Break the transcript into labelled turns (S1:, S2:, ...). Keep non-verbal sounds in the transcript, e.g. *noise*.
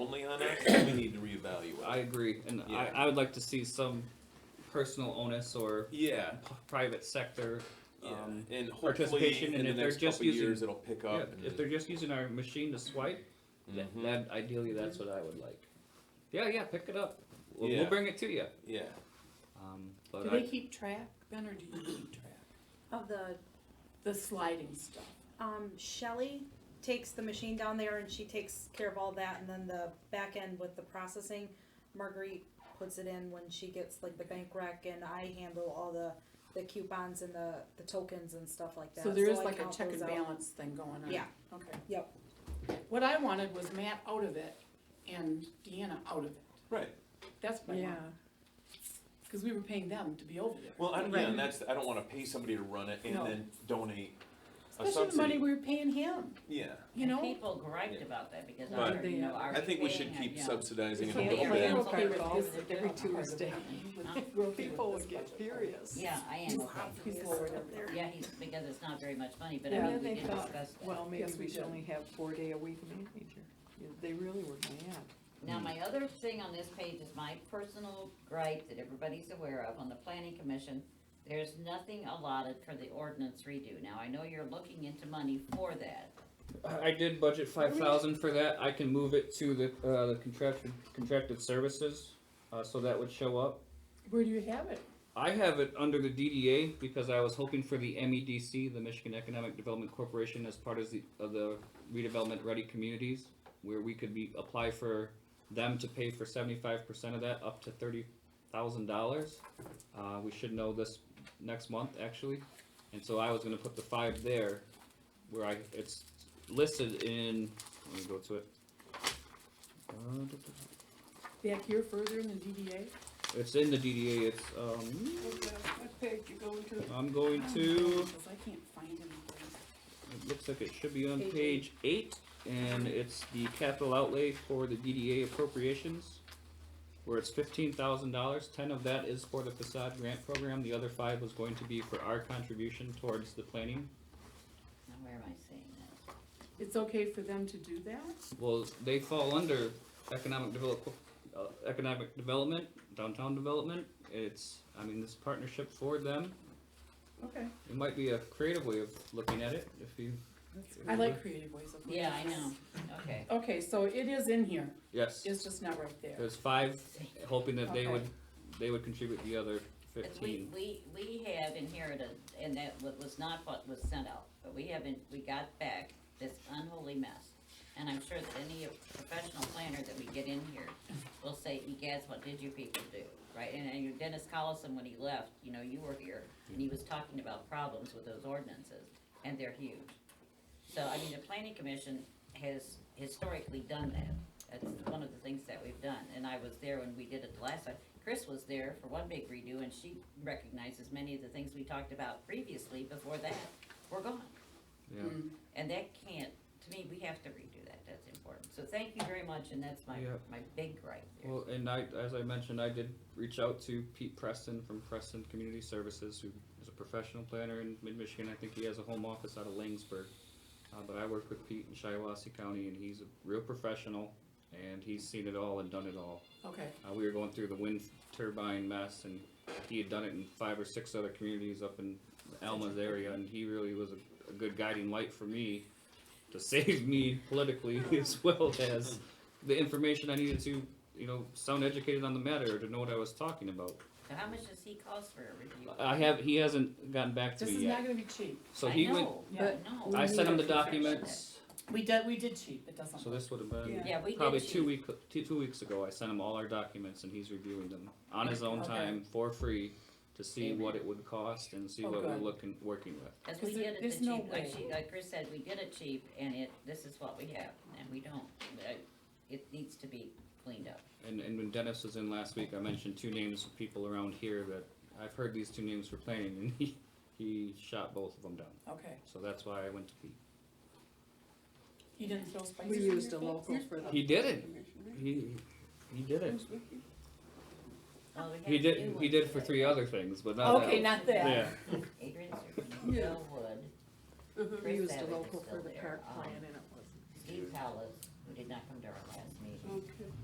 S1: on that, we need to reevaluate.
S2: I agree, and I,
S1: Yeah.
S2: I would like to see some personal onus or
S1: yeah.
S2: p- private sector.
S1: Yeah,
S2: Um,
S1: and hopefully
S2: participation,
S1: in
S2: and
S1: the
S2: if they're
S1: next
S2: just
S1: couple
S2: using-
S1: years it'll pick
S2: yeah,
S1: up. and
S2: if they're just using our machine to swipe, tha-
S1: Mhm.
S2: that ideally that's what I would like. Yeah, yeah, pick it up. We'll,
S1: Yeah.
S2: we'll bring it to you.
S1: yeah,
S2: Um, but
S3: Do
S2: I,
S3: they keep track, Ben, or do you keep track?
S4: Of the,
S3: The sliding stuff.
S4: um, Shelley takes the machine down there and she takes care of all that and then the back end with the processing. Marguerite puts it in when she gets like the bank rec and I handle all the, the coupons and the, the tokens and stuff like that.
S3: So there is
S4: I
S3: like a
S4: count
S3: check and
S4: those out.
S3: balance thing going on.
S4: Yeah.
S3: Okay.
S4: Yep.
S3: What I wanted was Matt out of it and Deanna out of it.
S1: right.
S3: That's what I
S5: Yeah,
S3: wanted. Cause we were paying them to be over there.
S1: Well, I, yeah,
S5: Right.
S1: and that's I don't want to pay somebody to run it and
S3: No.
S1: then donate a
S3: Especially the money
S1: subsidy.
S3: we were paying him,
S1: yeah,
S3: you know?
S6: People griped about that because
S1: Right.
S6: I heard, you know, are
S1: I think we
S6: paying
S1: should
S6: it?
S1: keep
S6: Yeah.
S1: subsidizing it
S5: So
S1: a little
S6: yeah,
S1: bit.
S6: yeah.
S5: every Tuesday. people would get furious.
S6: *laughs* Yeah, I am. okay.
S5: People would up there.
S6: Yeah, he's, because it's not very much money, but I
S5: Yeah,
S6: mean,
S5: they
S6: we did
S5: thought,
S6: discuss that.
S5: Well, maybe
S3: Yes, we
S5: we should
S3: did.
S5: only have four day a week manager. Yeah, They really were mad.
S6: Now,
S1: hmm.
S6: my other thing on this page is my personal gripe that everybody's aware of on the planning commission. There's nothing allotted for the ordinance redo. Now, I know you're looking into money for that.
S2: I I did budget five thousand for that. I can move it to the uh, the contracted contracted services, uh, so that would show up.
S3: Where do you have it?
S2: I have it under the DDA because I was hoping for the MEDC, the Michigan Economic Development Corporation, as part of the, of the redevelopment ready communities, where we could be, apply for them to pay for seventy-five percent of that, up to thirty thousand dollars. Uh, we should know this next month, actually, and so I was gonna put the five there, where I, it's listed in, let me go to it. Uh, duh, duh, duh.
S3: Back here further in the DDA?
S2: It's in the DDA, it's, um,
S5: What page you going to?
S2: I'm going to.
S3: Because I can't find anything.
S2: It looks like it should be on
S4: Page
S2: page eight, and it's the capital outlay for the DDA appropriations, where it's fifteen thousand dollars, ten of that is for the facade grant program, the other five was going to be for our contribution towards the planning.
S6: Now, where am I seeing that?
S3: It's okay for them to do that?
S2: Well, they fall under economic develop, uh, economic development, downtown development, it's, I mean, this partnership for them,
S3: Okay.
S2: it might be a creative way of looking at it, if you.
S3: I like creative ways of.
S6: Yeah, I
S3: looking at
S6: know, okay.
S3: this. Okay, so it is in here,
S2: Yes,
S3: it's just not right there.
S2: there's five, hoping that they
S3: Okay.
S2: would, they would contribute the other
S6: But We,
S2: fifteen.
S6: we, we have inherited, and that wa- was not what was sent out, but we haven't, we got back this unholy mess. And I'm sure that any professional planner that we get in here will say, egads, what did you people do? Right, and, and your Dennis Collison, when he left, you know, you were here, and he was talking about problems with those ordinances, and they're huge. So, I mean, the planning commission has historically done that. That's one of the things that we've done, and I was there when we did it the last time. Chris was there for one big redo, and she recognizes many of the things we talked about previously before that were gone.
S2: Yeah.
S3: Hmm,
S6: And that can't, to me, we have to redo that, that's important. So thank you very much, and that's my,
S2: Yeah.
S6: my big gripe there.
S2: Well, and I, as I mentioned, I did reach out to Pete Preston from Preston Community Services, who is a professional planner in mid-Michigan. I think he has a home office out of Langsburg. Uh, but I worked with Pete in Shiawassee County, and he's a real professional, and he's seen it all and done it all.
S3: Okay,
S2: Uh, we were going through the wind turbine mess, and he had done it in five or six other communities up in Alma's area, and he really was a, a good guiding light for me to *laughs* save me politically *laughs* as well as the information I needed to, you know, sound educated on the matter or to know what I was talking about.
S6: So how much does he cost for a review?
S2: I have he hasn't gotten back to
S3: this
S2: me
S3: is
S2: yet,
S3: not gonna be cheap.
S2: so
S6: I
S2: he went.
S6: know,
S3: yeah.
S6: no.
S2: I
S6: we
S2: sent him the
S6: need to fix that.
S2: documents,
S3: We did, we did cheap, it doesn't.
S2: so this would have been
S5: Yeah.
S6: Yeah, we did.
S2: probably two
S6: cheat.
S2: week two, two weeks ago. I sent him all our documents, and he's reviewing them on his own
S3: Okay.
S2: time for free to see what it would cost and see
S3: Oh,
S2: what we're
S3: good.
S2: looking working with.
S6: Cause we
S3: Is there-
S6: did it the
S3: there's no
S6: cheap, like
S3: way.
S6: she, like Chris said, we did it cheap and it, this is what we have and we don't, uh, it needs to be cleaned up.
S2: And and when Dennis was in last week, I mentioned two names of people around here that I've heard these two names for planning, and he he shot both of them down.
S3: Okay,
S2: So that's why I went to Pete.
S3: you didn't throw spices
S5: We
S3: in your
S5: used a
S3: food?
S5: local for the.
S2: He did it. He he did it.
S6: Well, we
S2: He
S6: have the
S2: did
S6: new
S2: he
S6: ones
S2: did for
S6: today.
S2: three other things, but not that
S3: Okay,
S2: one.
S3: not that.
S2: Yeah.
S6: Adrian's,
S5: Yeah.
S6: Bill Wood,
S5: We
S6: Chris
S5: used a
S6: Savage is
S5: local
S6: still
S5: for the
S6: there.
S5: park
S6: Um,
S5: plan and it wasn't.
S6: Steve Powers, who did not come to our last